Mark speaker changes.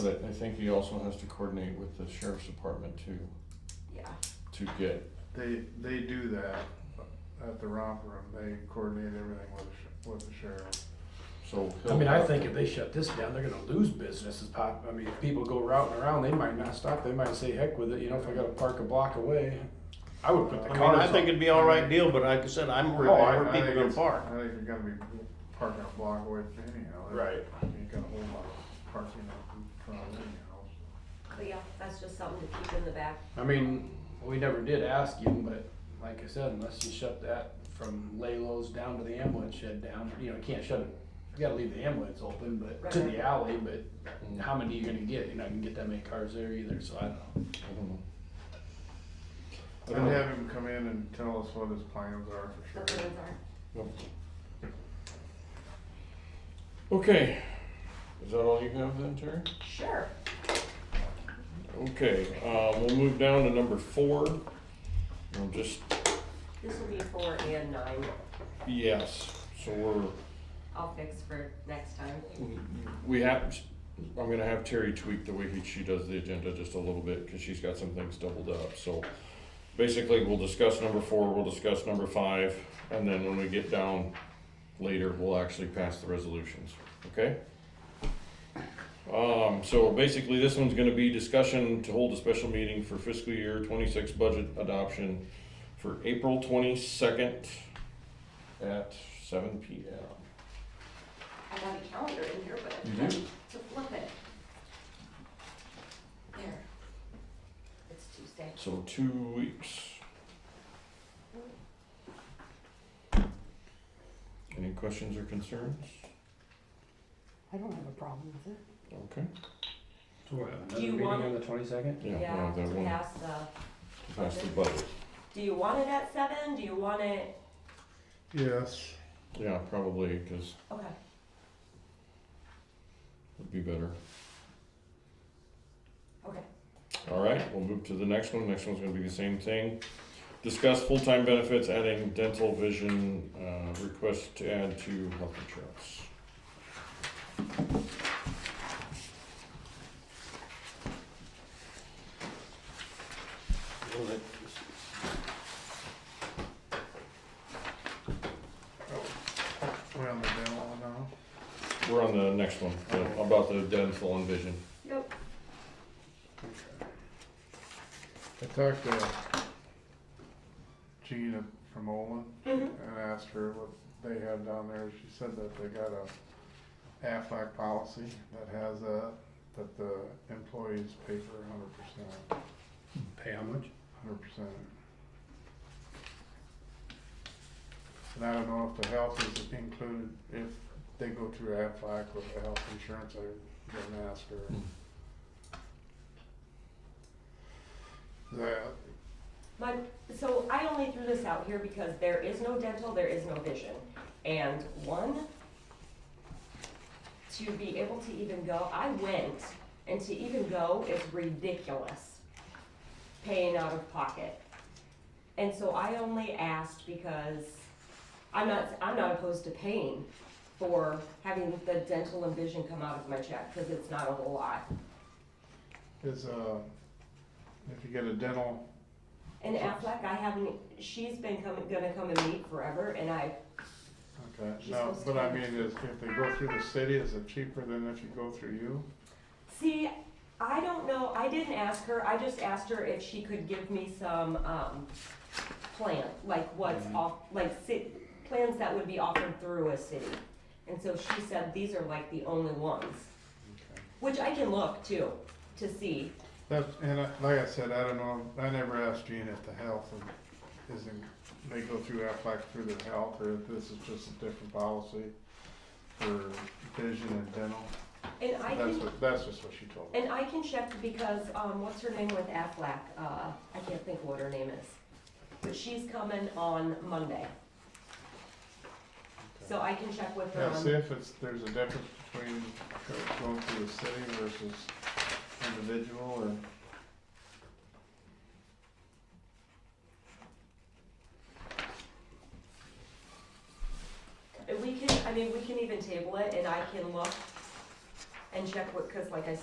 Speaker 1: But I, I think he also has to coordinate with the sheriff's department to,
Speaker 2: yeah.
Speaker 1: to get,
Speaker 3: They, they do that at the romp room, they coordinate everything with, the sh- with the sheriff.
Speaker 1: so.
Speaker 4: I
Speaker 1: he'll
Speaker 4: mean, I
Speaker 1: have
Speaker 4: think
Speaker 1: to-
Speaker 4: if they shut this down, they're gonna lose businesses, pop, I mean, if people go routing around, they might not stop, they might say, heck with it, you know, if I gotta park a block away. I would put the
Speaker 5: I mean, I
Speaker 4: cars
Speaker 5: think
Speaker 4: on,
Speaker 5: it'd be all right deal, but like I said, I'm worried
Speaker 4: Oh,
Speaker 5: about
Speaker 4: I-
Speaker 5: where
Speaker 3: I
Speaker 5: people
Speaker 3: think
Speaker 5: gonna
Speaker 3: it's-
Speaker 5: park.
Speaker 3: I think you're gonna be parking a block away from anyhow.
Speaker 4: Right.
Speaker 3: You got a whole lot of parking up in front of anyhow.
Speaker 2: But yeah, that's just something to keep in the back.
Speaker 4: I mean, we never did ask him, but like I said, unless you shut that from Lalo's down to the ambulance shed down, you know, you can't shut it. You gotta leave the ambulance open, but to
Speaker 2: Right.
Speaker 4: the alley, but how many you gonna get, you're not gonna get that many cars there either, so I don't know.
Speaker 1: I don't know. I
Speaker 3: I'd
Speaker 1: don't know.
Speaker 3: have him come in and tell us what his plans are for
Speaker 2: The
Speaker 3: sure.
Speaker 2: plans are-
Speaker 1: Okay, is that all you have then, Terry?
Speaker 2: Sure.
Speaker 1: Okay, uh, we'll move down to number four. We'll just,
Speaker 2: This will be four and nine.
Speaker 1: yes, so we're,
Speaker 2: I'll fix for next time.
Speaker 1: we have, I'm gonna have Terry tweak the way he- she does the agenda just a little bit, cause she's got some things doubled up, so. Basically, we'll discuss number four, we'll discuss number five, and then when we get down later, we'll actually pass the resolutions, okay? Um, so basically, this one's gonna be discussion to hold a special meeting for fiscal year twenty-six budget adoption for April twenty-second at seven P M.
Speaker 2: I got a calendar in here, but I
Speaker 1: You
Speaker 2: forgot
Speaker 1: do?
Speaker 2: to flip it. There. It's Tuesday.
Speaker 1: So two weeks. Any questions or concerns?
Speaker 6: I don't have a problem with it.
Speaker 1: Okay.
Speaker 4: So we'll have another
Speaker 2: you
Speaker 4: meeting
Speaker 2: want-
Speaker 4: on the twenty-second?
Speaker 1: Yeah, we'll have that
Speaker 2: to
Speaker 1: one
Speaker 2: pass the,
Speaker 1: pass the budget.
Speaker 2: do you want it at seven? Do you want it,
Speaker 3: Yes.
Speaker 1: Yeah, probably, because
Speaker 2: okay.
Speaker 1: it'd be better.
Speaker 2: Okay.
Speaker 1: All right, we'll move to the next one. Next one's gonna be the same thing. Discuss full-time benefits, adding dental, vision, uh, request to add to health insurance.
Speaker 3: We're on the demo now.
Speaker 1: We're on the next one, the- about the dental and vision.
Speaker 2: Yep.
Speaker 3: I talked to Gina from Olin
Speaker 2: Mhm.
Speaker 3: and asked her what they had down there. She said that they got a Aflac policy that has a, that the employees pay for hundred percent,
Speaker 4: Pay how much?
Speaker 3: hundred percent. And I don't know if the health is included, if they go through Aflac with the health insurance, I didn't ask her. That,
Speaker 2: But, so I only threw this out here because there is no dental, there is no vision. And one, to be able to even go, I went, and to even go is ridiculous, paying out of pocket. And so I only asked because I'm not, I'm not opposed to paying for having the dental and vision come out of my check, because it's not a whole lot.
Speaker 3: Is, uh, if you get a dental,
Speaker 2: And Aflac, I haven't, she's been coming, gonna come and meet forever, and I
Speaker 3: okay,
Speaker 2: She's
Speaker 3: no,
Speaker 2: supposed
Speaker 3: but
Speaker 2: to
Speaker 3: I
Speaker 2: have-
Speaker 3: mean, is, if they go through the city, is it cheaper than if you go through you?
Speaker 2: See, I don't know, I didn't ask her, I just asked her if she could give me some, um, plan, like what's
Speaker 3: Mm-hmm.
Speaker 2: off, like ci- plans that would be offered through a city. And so she said these are like the only ones,
Speaker 3: Okay.
Speaker 2: which I can look too, to see.
Speaker 3: That's, and I- like I said, I don't know, I never asked Gene if the health is- is, in- they go through Aflac through their health, or if this is just a different policy for vision and dental.
Speaker 2: And I
Speaker 3: That's
Speaker 2: can,
Speaker 3: what, that's just what she told me.
Speaker 2: and I can check because, um, what's her name with Aflac, uh, I can't think what her name is. But she's coming on Monday. So I can check with her
Speaker 3: Yeah,
Speaker 2: on-
Speaker 3: see if it's, there's a difference between going through the city versus individual, or.
Speaker 2: We can, I mean, we can even table it and I can look and check what, cause like I